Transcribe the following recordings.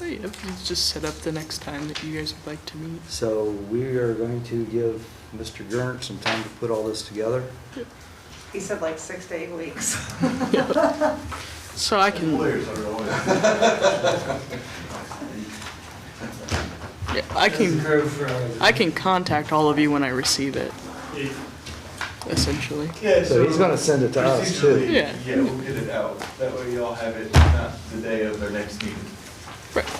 Oh, yeah, if you just set up the next time that you guys would like to meet. So we are going to give Mr. Gerndt some time to put all this together. He said like six to eight weeks. So I can, Lawyers are always. yeah, I can, I can contact all of you when I receive it, essentially. Yeah, So he's gonna send it to us, too. procedurally, Yeah. Yeah, we'll get it out. That way y'all have it not the day of their next meeting. Right.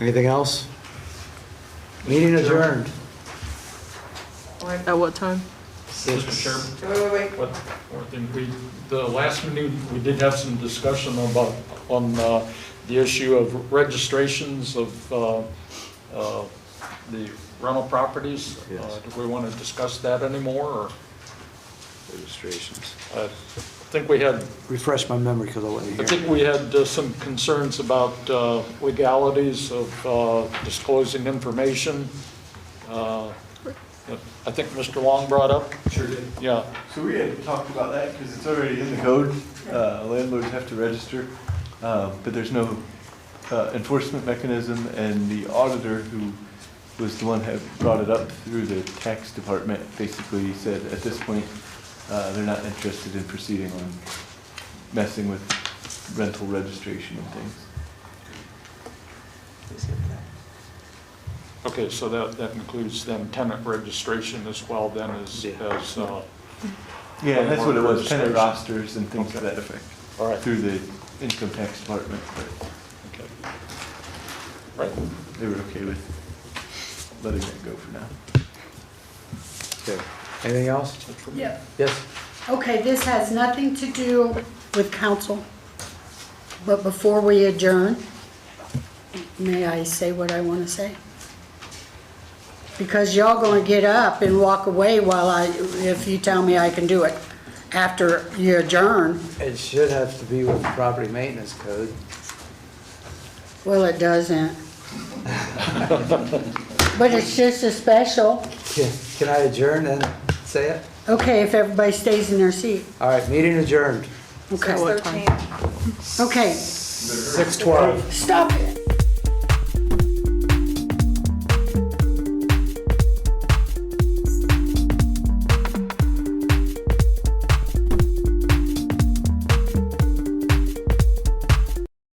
Anything else? Meeting adjourned. Wait, At what time? Six. Mr. Chairman, wait, wait. what, one thing, we, the last meeting, we did have some discussion about, on uh, the issue of registrations of uh, uh, the rental properties. Uh, Yes. Do we want to discuss that anymore, or, uh, Registrations. I think we had, Refresh my memory because I wasn't I here. think we had uh, some concerns about uh, legalities of uh, disclosing information. uh, that I think Mr. Long brought up, Sure did. yeah. So we had talked about that because it's already in the code. Uh, Landlords have to register, um, but there's no uh, enforcement mechanism. And the auditor, who was the one who brought it up through the tax department, basically said, at this point, uh, they're not interested in proceeding on messing with rental registration and things. Okay, so that, that includes then tenant registration as well then as, Yeah. as, uh, Yeah, that's what it was, Registration. tenant rosters and things to Okay. that effect, all right, through the income tax department. but okay. Right, They were okay with letting that go for now. Okay. Anything else? that's from- Yeah, Yes? okay, this has nothing to do with council, but before we adjourn, may I say what I want to say? Because y'all gonna get up and walk away while I, if you tell me I can do it after you adjourn. It should have to be with the property maintenance code. Well, it doesn't. But it's just a special. Can can I adjourn and say it? Okay, if everybody stays in their seat. All right, meeting adjourned. Okay, Six thirteen. okay, Six twelve. stop it.